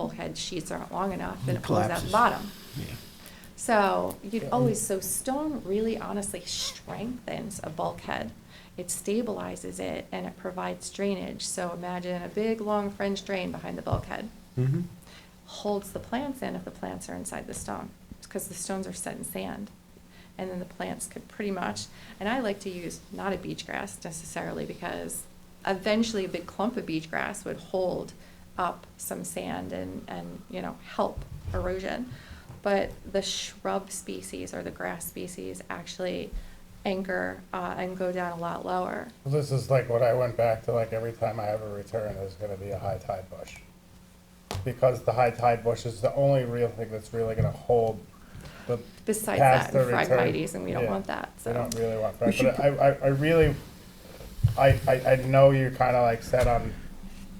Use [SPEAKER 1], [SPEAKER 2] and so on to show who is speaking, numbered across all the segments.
[SPEAKER 1] bulkhead sheets aren't long enough, then it pulls out the
[SPEAKER 2] collapses.
[SPEAKER 1] bottom.
[SPEAKER 2] Yeah.
[SPEAKER 1] So you'd always, so stone really honestly strengthens a bulkhead. It stabilizes it and it provides drainage. So imagine a big, long French drain behind the bulkhead.
[SPEAKER 2] Mm-hmm.
[SPEAKER 1] Holds the plants in if the plants are inside the stone, because the stones are set in sand. And then the plants could pretty much, and I like to use not a beach grass necessarily because eventually a big clump of beach grass would hold up some sand and, and, you know, help erosion. But the shrub species or the grass species actually anchor, uh, and go down a lot lower.
[SPEAKER 3] Well, This is like what I went back to, like every time I have a return, there's gonna be a high tide bush. Because the high tide bush is the only real thing that's really gonna hold the.
[SPEAKER 1] Besides
[SPEAKER 3] past
[SPEAKER 1] that, and
[SPEAKER 3] the return.
[SPEAKER 1] phragmites, and we don't
[SPEAKER 3] Yeah.
[SPEAKER 1] want that, so.
[SPEAKER 3] We don't really want that, but I, I, I really, I, I, I know you're kinda like set on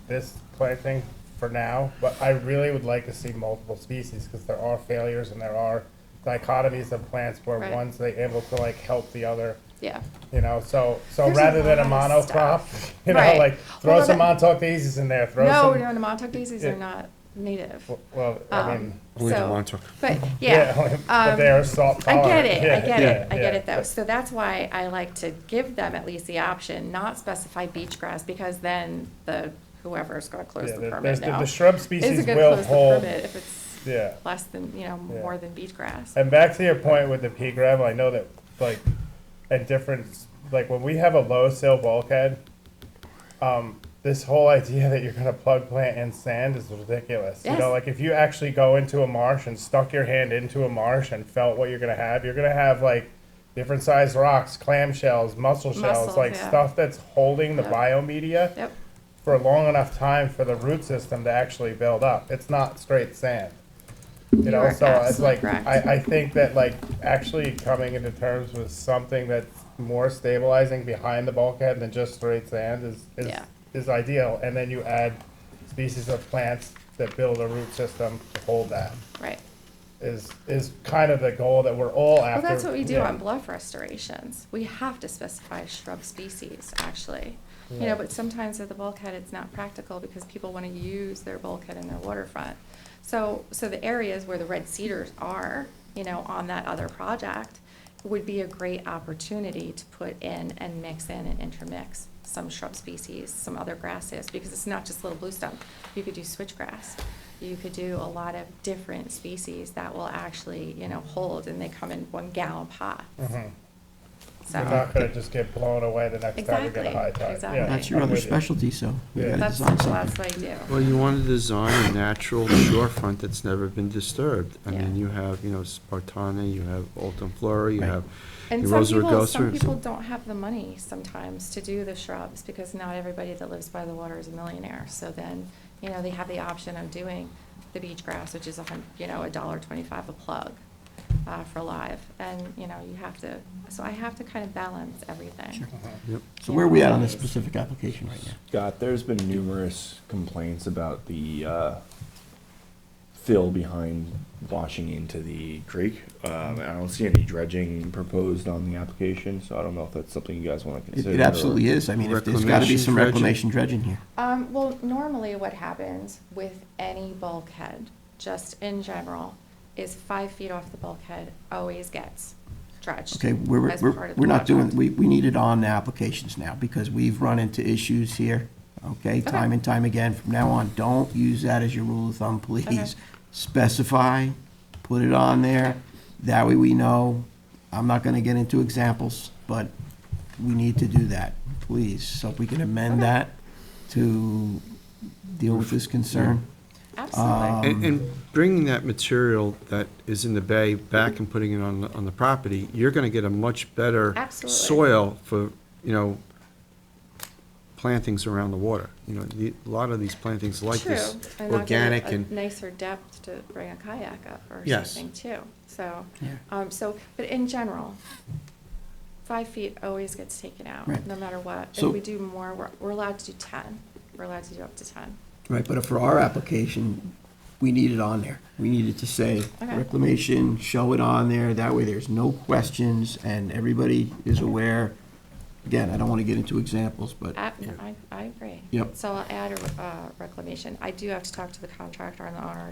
[SPEAKER 3] this planting for now, but I really would like to see multiple species, cause there are failures and there are dichotomies of plants where
[SPEAKER 1] Right.
[SPEAKER 3] one's they able to like help the other.
[SPEAKER 1] Yeah.
[SPEAKER 3] You know, so so
[SPEAKER 1] There's a
[SPEAKER 3] rather than a
[SPEAKER 1] lot of
[SPEAKER 3] monocrop,
[SPEAKER 1] stuff.
[SPEAKER 3] you know,
[SPEAKER 1] Right.
[SPEAKER 3] like throw
[SPEAKER 1] Well,
[SPEAKER 3] some
[SPEAKER 1] that-
[SPEAKER 3] Montauk daisies in there. Throw
[SPEAKER 1] No,
[SPEAKER 3] some.
[SPEAKER 1] no, the Montauk daisies
[SPEAKER 3] Yeah.
[SPEAKER 1] are not native.
[SPEAKER 3] w- Well, I
[SPEAKER 1] Um,
[SPEAKER 3] mean,
[SPEAKER 2] Only the
[SPEAKER 1] so-
[SPEAKER 2] Montauk.
[SPEAKER 1] But,
[SPEAKER 3] yeah,
[SPEAKER 1] yeah.
[SPEAKER 3] but
[SPEAKER 1] um,
[SPEAKER 3] they are salt
[SPEAKER 1] I get
[SPEAKER 3] tolerant.
[SPEAKER 1] it,
[SPEAKER 3] Yeah,
[SPEAKER 1] I get
[SPEAKER 3] yeah,
[SPEAKER 1] it, I get
[SPEAKER 3] yeah.
[SPEAKER 1] it though. So that's why I like to give them at least the option, not specify beach grass, because then the, whoever's gonna close
[SPEAKER 3] Yeah,
[SPEAKER 1] the
[SPEAKER 3] there-
[SPEAKER 1] permit
[SPEAKER 3] there's the-
[SPEAKER 1] now.
[SPEAKER 3] the shrub
[SPEAKER 1] is
[SPEAKER 3] species
[SPEAKER 1] gonna
[SPEAKER 3] will
[SPEAKER 1] close the
[SPEAKER 3] hold-
[SPEAKER 1] permit If it's
[SPEAKER 3] Yeah.
[SPEAKER 1] less than, you know,
[SPEAKER 3] Yeah.
[SPEAKER 1] more than beach grass.
[SPEAKER 3] And back to your point with the pea gravel, I know that like at different like when we have a low sill bulkhead, um, this whole idea that you're gonna plug plant in sand is ridiculous. You
[SPEAKER 1] Yes.
[SPEAKER 3] know, like if you actually go into a marsh and stuck your hand into a marsh and felt what you're gonna have, you're gonna have like different sized rocks, clamshells, mussel shells,
[SPEAKER 1] Mussels,
[SPEAKER 3] like
[SPEAKER 1] yeah.
[SPEAKER 3] stuff that's holding the
[SPEAKER 1] Yep.
[SPEAKER 3] biomedia
[SPEAKER 1] Yep,
[SPEAKER 3] for a long enough time for the root system to actually build up. It's not straight sand. You
[SPEAKER 1] You
[SPEAKER 3] know,
[SPEAKER 1] are
[SPEAKER 3] so it's
[SPEAKER 1] absolutely
[SPEAKER 3] like,
[SPEAKER 1] correct.
[SPEAKER 3] I, I think that like actually coming into terms with something that's more stabilizing behind the bulkhead than just straight sand is, is,
[SPEAKER 1] Yeah.
[SPEAKER 3] is ideal. And then you add species of plants that build a root system to hold that
[SPEAKER 1] right.
[SPEAKER 3] is, is kind of the goal that we're all
[SPEAKER 1] Well,
[SPEAKER 3] after.
[SPEAKER 1] that's what we do
[SPEAKER 3] Yeah.
[SPEAKER 1] on bluff restorations. We have to specify shrub species, actually. You know,
[SPEAKER 3] Yeah.
[SPEAKER 1] but sometimes at the bulkhead, it's not practical because people want to use their bulkhead in their waterfront. So, so the areas where the red cedars are, you know, on that other project would be a great opportunity to put in and mix in and intermix some shrub species, some other grasses, because it's not just little bluestem. You could do switchgrass. You could do a lot of different species that will actually, you know, hold and they come in one gallon pots.
[SPEAKER 3] Mhm. We're
[SPEAKER 1] So,
[SPEAKER 3] not gonna just get blown away the next time we get a
[SPEAKER 1] Exactly,
[SPEAKER 3] high tide. Yeah,
[SPEAKER 1] exactly.
[SPEAKER 2] That's your
[SPEAKER 3] I'm
[SPEAKER 2] other
[SPEAKER 3] with you.
[SPEAKER 2] specialty, so you
[SPEAKER 3] Yeah.
[SPEAKER 2] gotta
[SPEAKER 1] that's,
[SPEAKER 2] design something.
[SPEAKER 1] that's what I do.
[SPEAKER 4] Well, you want to design a natural shorefront that's never been disturbed. I mean,
[SPEAKER 1] Yeah.
[SPEAKER 4] you have, you know, Spartana, you have Alton Flora, you
[SPEAKER 2] Right.
[SPEAKER 4] have
[SPEAKER 1] And
[SPEAKER 4] the
[SPEAKER 1] some
[SPEAKER 4] Rosa
[SPEAKER 1] people, some
[SPEAKER 4] Regosa.
[SPEAKER 1] people don't have the money sometimes to do the shrubs, because not everybody that lives by the water is a millionaire. So then, you know, they have the option of doing the beach grass, which is a hun, you know, a dollar twenty-five a plug, uh, for live. And, you know, you have to, so I have to kind of balance everything.
[SPEAKER 2] Sure.
[SPEAKER 4] Yep.
[SPEAKER 2] So where are we at on this specific application right now?
[SPEAKER 5] Scott, there's been numerous complaints about the uh, fill behind washing into the creek. Um, I don't see any dredging proposed on the application, so I don't know if that's something you guys want to
[SPEAKER 2] It-
[SPEAKER 5] consider.
[SPEAKER 2] It absolutely is. I mean, if there's gotta be
[SPEAKER 4] Reclamation
[SPEAKER 2] some
[SPEAKER 4] dredging.
[SPEAKER 2] reclamation dredging here.
[SPEAKER 1] Um, well, normally what happens with any bulkhead, just in general, is five feet off the bulkhead always gets dredged.
[SPEAKER 2] Okay, we're,
[SPEAKER 1] as part
[SPEAKER 2] we're,
[SPEAKER 1] of the
[SPEAKER 2] we're not doing,
[SPEAKER 1] project.
[SPEAKER 2] we, we need it on the applications now, because we've run into issues here, okay, time and time again. From now on, don't use that as your rule of thumb,
[SPEAKER 1] Okay.
[SPEAKER 2] please. Specify, put it on there, that way we know. I'm not gonna get into examples, but we need to do that, please. So if we can amend that to deal with this concern. um,
[SPEAKER 1] Absolutely.
[SPEAKER 4] And, and bringing that material that is in the bay back and putting it on, the- on the property, you're going to get a much better
[SPEAKER 1] Absolutely.
[SPEAKER 4] soil for, you know, plantings around the water. You know, the, a lot of these plantings like this,
[SPEAKER 1] True, and not give
[SPEAKER 4] organic
[SPEAKER 1] it a
[SPEAKER 4] and
[SPEAKER 1] Nicer depth to bring a kayak up or
[SPEAKER 4] Yes.
[SPEAKER 1] something too, so,
[SPEAKER 2] Yeah.
[SPEAKER 1] um, so, but in general, five feet always gets taken out,
[SPEAKER 2] Right.
[SPEAKER 1] no matter what. If
[SPEAKER 2] So-
[SPEAKER 1] we do more, we're, we're allowed to do ten, we're allowed to do up to ten.
[SPEAKER 2] Right, but for our application, we need it on there. We need it to say
[SPEAKER 1] Okay.
[SPEAKER 2] reclamation, show it on there, that way there's no questions, and everybody is aware Again, I don't want to get into examples, but.
[SPEAKER 1] I, I, I agree.
[SPEAKER 2] Yep.
[SPEAKER 1] So I'll add a, uh, reclamation. I do have to talk to the contractor and the owner